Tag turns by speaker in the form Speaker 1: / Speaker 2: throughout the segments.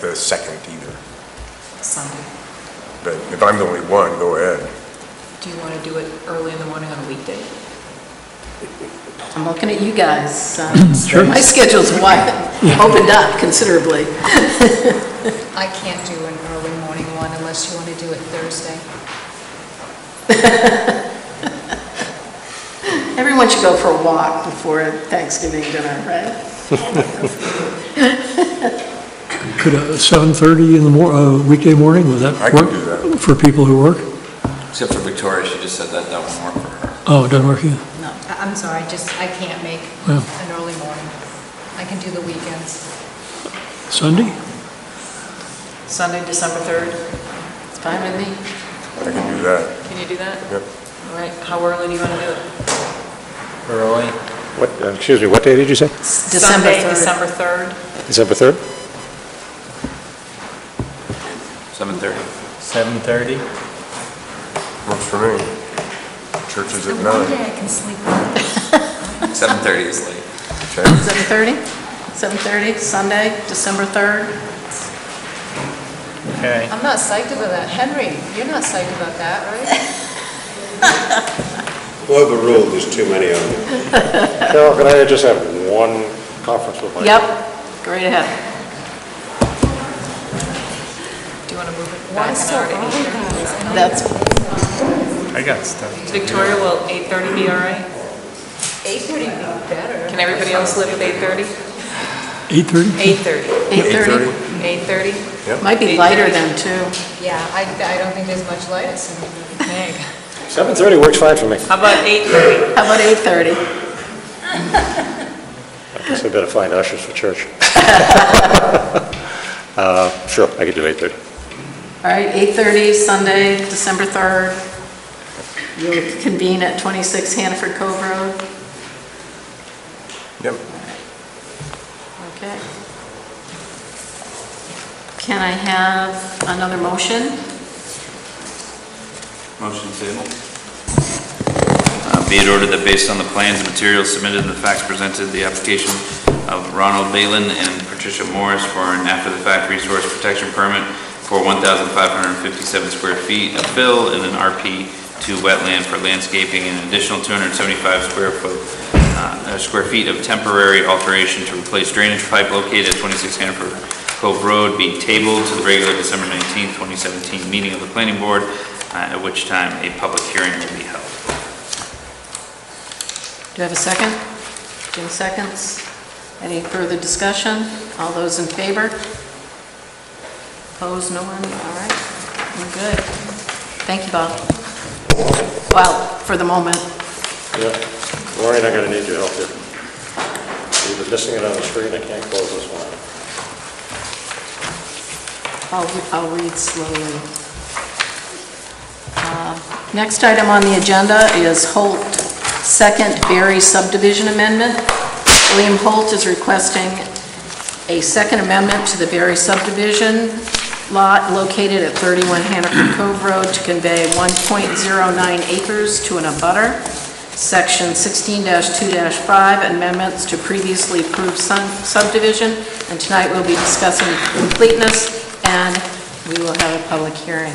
Speaker 1: the second either.
Speaker 2: Sunday.
Speaker 1: But if I'm the only one, go ahead.
Speaker 2: Do you want to do it early in the morning on a weekday?
Speaker 3: I'm looking at you guys. um, My schedule's wide, opened up considerably.
Speaker 4: I can't do an early morning one unless you want to do it Thursday.
Speaker 3: Everyone should go for a walk before Thanksgiving dinner, right?
Speaker 5: Could uh, 7:30 in the mor, uh, weekday morning, would that
Speaker 1: I
Speaker 5: work?
Speaker 1: can do that.
Speaker 5: For people who work?
Speaker 6: Except for Victoria, she just said that that won't work for her.
Speaker 5: Oh, it doesn't work here?
Speaker 4: No, I- I'm sorry, just, I can't make
Speaker 5: Yeah.
Speaker 4: an early morning. I can do the weekends.
Speaker 5: Sunday?
Speaker 2: Sunday, December 3rd?
Speaker 3: It's fine with me.
Speaker 1: I can do that.
Speaker 2: Can you do that?
Speaker 1: Yep.
Speaker 2: All right, how early do you want to do it?
Speaker 6: Early?
Speaker 7: What, uh, excuse me, what day did you say?
Speaker 3: December
Speaker 2: Sunday,
Speaker 3: 3rd.
Speaker 2: December 3rd?
Speaker 7: December 3rd?
Speaker 6: 7:30?
Speaker 8: 7:30?
Speaker 1: Works for me. Church is
Speaker 4: The
Speaker 1: at
Speaker 4: one
Speaker 1: nine.
Speaker 4: day I can sleep on.
Speaker 6: 7:30 is late.
Speaker 1: Okay.
Speaker 3: 7:30? 7:30, Sunday, December 3rd?
Speaker 8: Okay.
Speaker 4: I'm not psyched about that. Henry, you're not psyched about that, right?
Speaker 9: Well, the rule, there's too many of them.
Speaker 7: Carol, can I just have one conference with my...
Speaker 3: Yep, great ahead.
Speaker 2: Do you want to move it
Speaker 4: Why
Speaker 2: back an
Speaker 4: so
Speaker 2: hour to
Speaker 4: early,
Speaker 2: 8:30?
Speaker 4: guys? I know
Speaker 3: That's,
Speaker 8: I got stuff.
Speaker 2: Victoria, will 8:30 be all right?
Speaker 4: 8:30 would be better.
Speaker 2: Can everybody else live at 8:30?
Speaker 5: 8:30?
Speaker 2: 8:30.
Speaker 3: 8:30?
Speaker 2: 8:30?
Speaker 3: Might be lighter then, too.
Speaker 4: Yeah, I, I don't think there's much light at 7:30.
Speaker 7: 7:30 works fine for me.
Speaker 2: How about 8:30?
Speaker 3: How about 8:30?
Speaker 7: I guess I better find ushers for church. Uh, Sure, I could do 8:30.
Speaker 3: All right, 8:30, Sunday, December 3rd. You'll convene at 26 Hanford Cove Road.
Speaker 1: Yep.
Speaker 3: Okay. Can I have another motion?
Speaker 6: Motion table. Uh, Be it ordered that based on the plans and materials submitted and the facts presented, the application of Ronald Balin and Patricia Morris for an after-the-fact resource protection permit for 1,557 square feet of fill in an RP2 wetland for landscaping and an additional 275 square foot, uh, uh, square feet of temporary alteration to replace drainage pipe located at 26 Hanover Cove Road be tabled to the regular December 19, 2017 meeting of the planning board, uh, at which time a public hearing will be held.
Speaker 3: Do you have a second? Jim seconds. Any further discussion? All those in favor? Opposed, no one? All right, we're good. Thank you, Bob. Well, for the moment.
Speaker 7: Yeah. Maureen, I'm going to need your help here. We've been missing it on the screen, I can't close this one.
Speaker 3: I'll, I'll read slowly. Uh, Next item on the agenda is Holt Second Berry subdivision amendment. William Holt is requesting a second amendment to the Berry subdivision lot located at 31 Hannaford Cove Road to convey 1.09 acres to an abutter. Section 16-2-5 amendments to previously approved sun- subdivision. And tonight we'll be discussing completeness and we will have a public hearing.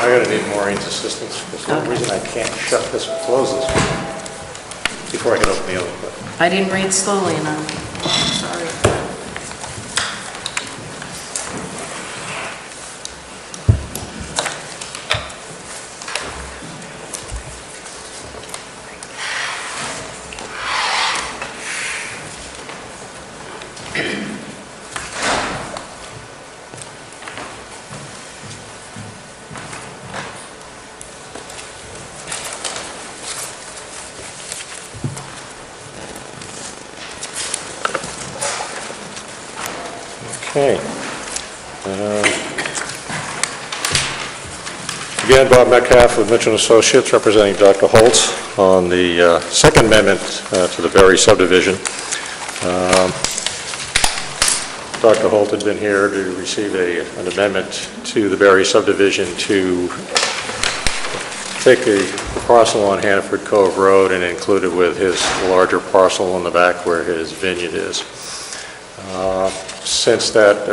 Speaker 7: I'm going to need Maureen's assistance. For some
Speaker 3: Okay.
Speaker 7: reason, I can't shut this, close this one before I can open the other one.
Speaker 3: I didn't read slowly enough. Sorry.
Speaker 7: Okay. Um, Again, Bob Metcalf with Mitchell and Associates, representing Dr. Holtz on the uh, Second Amendment uh, to the Berry subdivision. Um, Dr. Holt had been here to receive a- an amendment to the Berry subdivision to take a parcel on Hannaford Cove Road and include it with his larger parcel in the back where his vineyard is. Uh, Since that